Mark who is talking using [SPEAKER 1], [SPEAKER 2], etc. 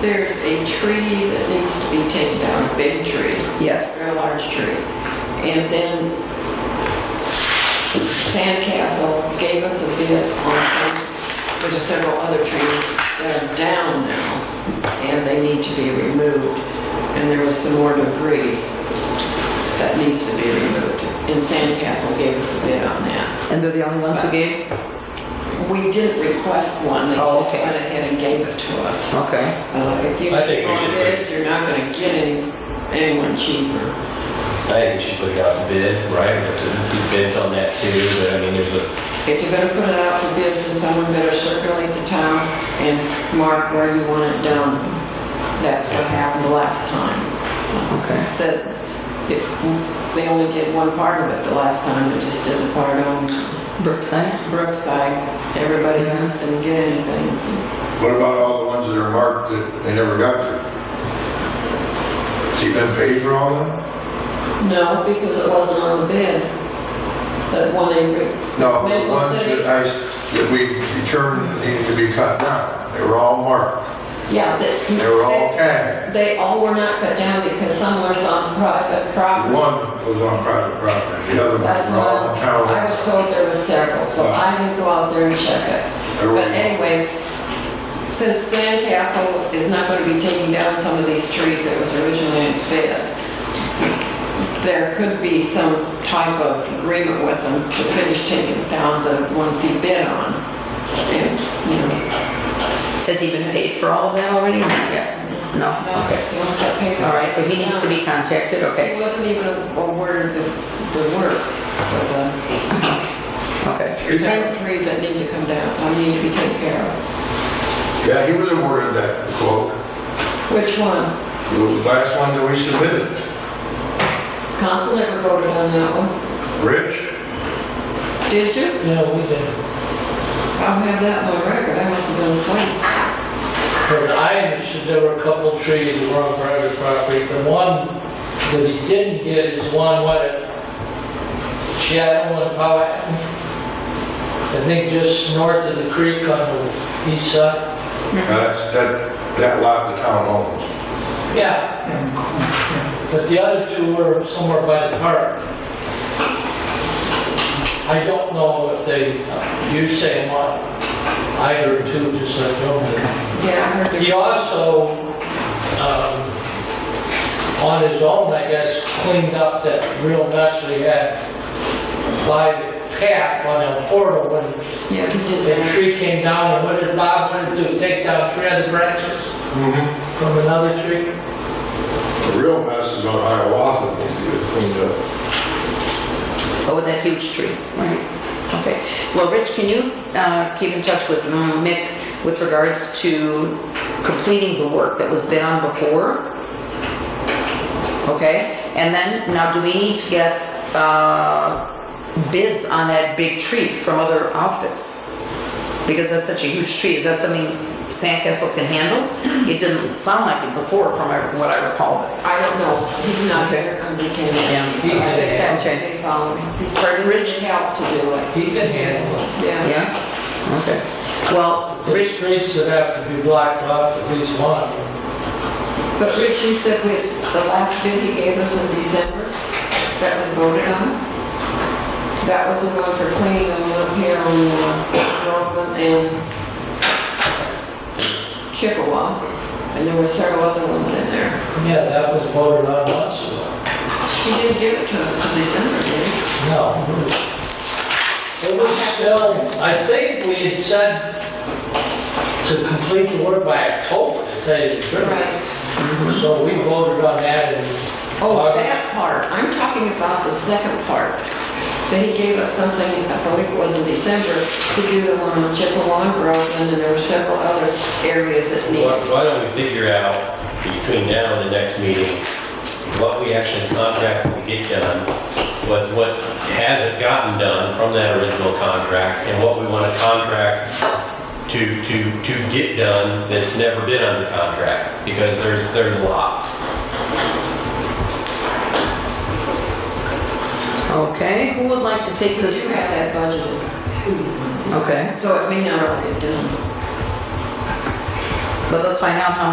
[SPEAKER 1] There's a tree that needs to be taken down, a big tree,
[SPEAKER 2] Yes.
[SPEAKER 1] a large tree. And then Sandcastle gave us a bid on some, there's several other trees that are down now, and they need to be removed. And there was some more debris that needs to be removed. And Sandcastle gave us a bid on that.
[SPEAKER 2] And they're the only ones who gave?
[SPEAKER 1] We didn't request one, they
[SPEAKER 2] Oh,
[SPEAKER 1] just
[SPEAKER 2] okay.
[SPEAKER 1] went ahead and gave it to us.
[SPEAKER 2] Okay.
[SPEAKER 1] Uh, If you
[SPEAKER 3] I think we should
[SPEAKER 1] want it, you're not gonna get any, anyone cheaper.
[SPEAKER 3] I think we should put it out to bid, right? We have to do bids on that too, but I mean, there's a,
[SPEAKER 1] If you're gonna put it out for bids, then someone better circulate the town and mark where you want it done. That's what happened last time.
[SPEAKER 2] Okay.
[SPEAKER 1] That, it- they only did one part of it the last time, they just did the part on
[SPEAKER 2] Brookside?
[SPEAKER 1] Brookside. Everybody else didn't get anything.
[SPEAKER 4] What about all the ones that are marked that they never got to? See them paid for all of them?
[SPEAKER 1] No, because it wasn't on the bid. That one they, re-
[SPEAKER 4] No, the
[SPEAKER 1] Maple
[SPEAKER 4] ones
[SPEAKER 1] City.
[SPEAKER 4] that I, s- that we determined needed to be cut down, they were all marked,
[SPEAKER 1] yeah, that.
[SPEAKER 4] they were all tagged.
[SPEAKER 1] They all were not cut down because some were on private property.
[SPEAKER 4] One was on private property, the other
[SPEAKER 1] That's
[SPEAKER 4] ones were
[SPEAKER 1] what I
[SPEAKER 4] all
[SPEAKER 1] was,
[SPEAKER 4] on
[SPEAKER 1] I was
[SPEAKER 4] town.
[SPEAKER 1] told there were several, so I didn't go out there and check it.
[SPEAKER 4] There were-
[SPEAKER 1] But anyway, since Sandcastle is not gonna be taking down some of these trees that was originally in its bid, there could be some type of agreement with them to finish taking down the ones he bid on. And, you know,
[SPEAKER 2] Has he been paid for all of that already? Yeah. No? Okay.
[SPEAKER 1] you don't get paid.
[SPEAKER 2] All right, so he needs to be contacted,
[SPEAKER 1] It
[SPEAKER 2] okay?
[SPEAKER 1] wasn't even awarded the, the work for the
[SPEAKER 2] Okay.
[SPEAKER 1] There's certain trees that need to come down, I need to be taken care of.
[SPEAKER 4] Yeah, he was awarded that quote,
[SPEAKER 1] Which one?
[SPEAKER 4] it was the last one that we submitted.
[SPEAKER 1] Council never voted on that one.
[SPEAKER 4] Rich?
[SPEAKER 1] Mm-hmm. Did you?
[SPEAKER 5] No, we didn't.
[SPEAKER 1] I don't have that on record, I must have been asleep.
[SPEAKER 5] But I understood there were a couple trees that were on private property. The one that he didn't get is one, what, at Shadow and Powhatan? I think just north of the creek on the east side.
[SPEAKER 4] That's, that, that lot the town owns.
[SPEAKER 5] Yeah. But the other two were somewhere by the park. I don't know if they, you say one, I heard two, just like Roman.
[SPEAKER 1] Yeah, I heard
[SPEAKER 5] He
[SPEAKER 1] it.
[SPEAKER 5] also, um, on his own, I guess, cleaned up that real mess we had by the path on El Portal when
[SPEAKER 1] Yeah, he did
[SPEAKER 5] the
[SPEAKER 1] that.
[SPEAKER 5] tree came down, and what did Bob, what did he do, take down three other branches from another tree?
[SPEAKER 4] The real mess is on Hiawatha, that needs to get cleaned up.
[SPEAKER 2] Oh, that huge tree, right? Okay. Well, Rich, can you uh, keep in touch with um, Mick with regards to completing the work that was bid on before? Okay, and then, now do we need to get uh, bids on that big tree from other outfits? Because that's such a huge tree, is that something Sandcastle can handle? It didn't sound like it before from what I recall.
[SPEAKER 1] I don't know, he's not
[SPEAKER 2] Okay.
[SPEAKER 1] here, I'm the candidate.
[SPEAKER 2] Yeah.
[SPEAKER 1] I think that
[SPEAKER 2] Okay.
[SPEAKER 1] should be followed, he's starting rich help to do it,
[SPEAKER 5] He can handle it.
[SPEAKER 1] yeah.
[SPEAKER 2] Yeah? Okay. Well,
[SPEAKER 5] Three
[SPEAKER 2] Rich,
[SPEAKER 5] streets that have to be blocked off, at least one.
[SPEAKER 1] But Rich, you said with the last bid he gave us in December, that was voted on? That was the one for cleaning the one up here on uh, Rockland and Chippewa. And there were several other ones in there.
[SPEAKER 5] Yeah, that was voted on once ago.
[SPEAKER 1] He didn't give it to us till December, did he?
[SPEAKER 5] No. It was still, I think we had said to complete the work by October, to tell you the truth.
[SPEAKER 1] Right.
[SPEAKER 5] So we voted on that in
[SPEAKER 1] Oh,
[SPEAKER 5] August.
[SPEAKER 1] that part. I'm talking about the second part. That he gave us something, I believe it was in December, to do the one on Chippewa and Rockland, and there were several other areas that
[SPEAKER 3] why
[SPEAKER 1] needed.
[SPEAKER 3] why don't we figure out between now and the next meeting, what we actually contract will get done, what, what hasn't gotten done from that original contract, and what we want to contract to, to, to get done that's never been under contract, because there's, there's a lot.
[SPEAKER 2] okay, who would like to take
[SPEAKER 1] You
[SPEAKER 2] this?
[SPEAKER 1] have that budgeted.
[SPEAKER 2] Okay,
[SPEAKER 1] So it may not all get done.
[SPEAKER 2] but let's find out how